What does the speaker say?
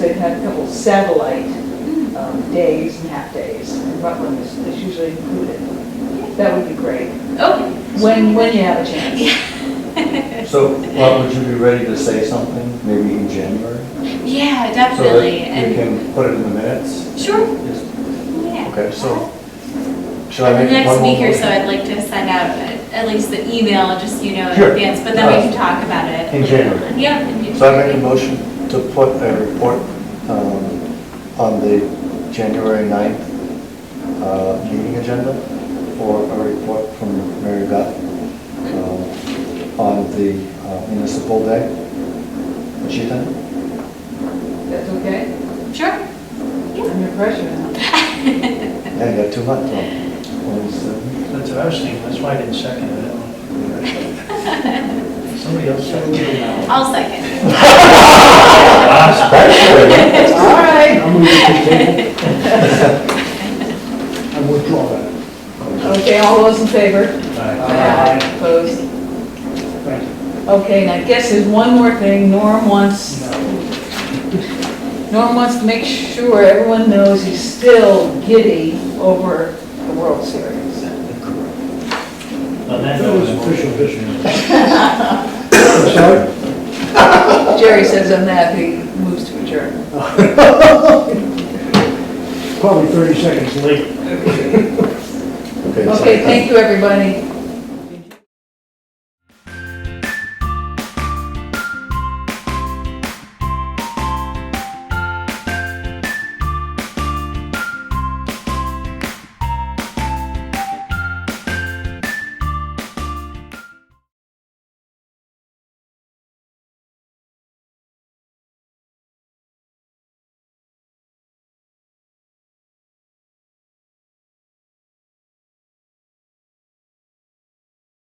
they've had a couple satellite um, days and half-days, and Rutland is is usually included. That would be great, Okay. when, when you have a chance. So, Rob, would you be ready to say something, maybe in January? Yeah, So that definitely, we and, can put it in the minutes? sure, Yes. yeah. Okay, so, should In I the make one next more? week or so, motion? I'd like to send out a- at least the email, just, you know, in Sure. advance, but then we can Uh, talk about it. in January. Yeah. in So I make a January. motion to put a report um, on the January 9th uh, meeting agenda for a report from Mary Beth um, on the uh, municipal day. What you think? That's okay? Sure. I'm under pressure now. Yeah, you got two months. left. Well, it's, uh, That's what I was thinking, that's why I didn't second it. Somebody else seconded it. I'll second. Especially, All right, I'm moving to table. I withdraw that. okay, all those in favor? Aye. Opposed? Thank you. Okay, and I guess there's one more thing, Norm wants, Norm wants to make sure everyone knows he's still giddy over the World Series. On that note, I'm official Jerry says I'm that, he moves to adjourn. Probably 30 seconds late. okay. so- Okay, thank you, everybody.